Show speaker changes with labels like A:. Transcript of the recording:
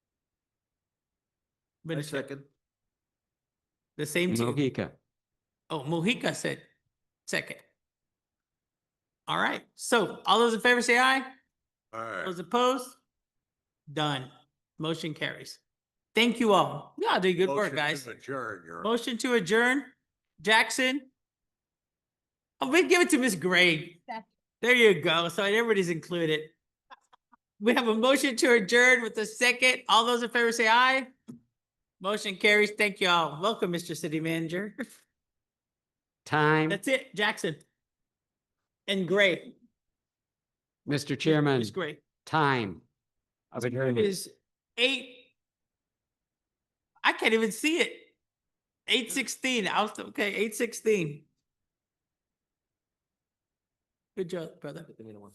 A: Wait a second. The same team.
B: Mohica.
A: Oh, Mojica said second. All right. So all those in favor say aye.
C: Alright,
A: Those opposed? Done. Motion carries. Thank you all. Yeah, did good work, guys.
C: Adjourn, you're.
A: Motion to adjourn. Jackson? Oh, we give it to Miss Gray.
D: Second.
A: There you go. So everybody's included. We have a motion to adjourn with a second. All those in favor say aye. Motion carries. Thank you all. Welcome, Mr. City Manager.
B: Time,
A: That's it, Jackson. And Gray.
B: Mr. Chairman,
A: Miss Gray
B: time. Of adjournment.
A: is eight. I can't even see it. Eight sixteen. I was, okay, eight sixteen. Good job, brother.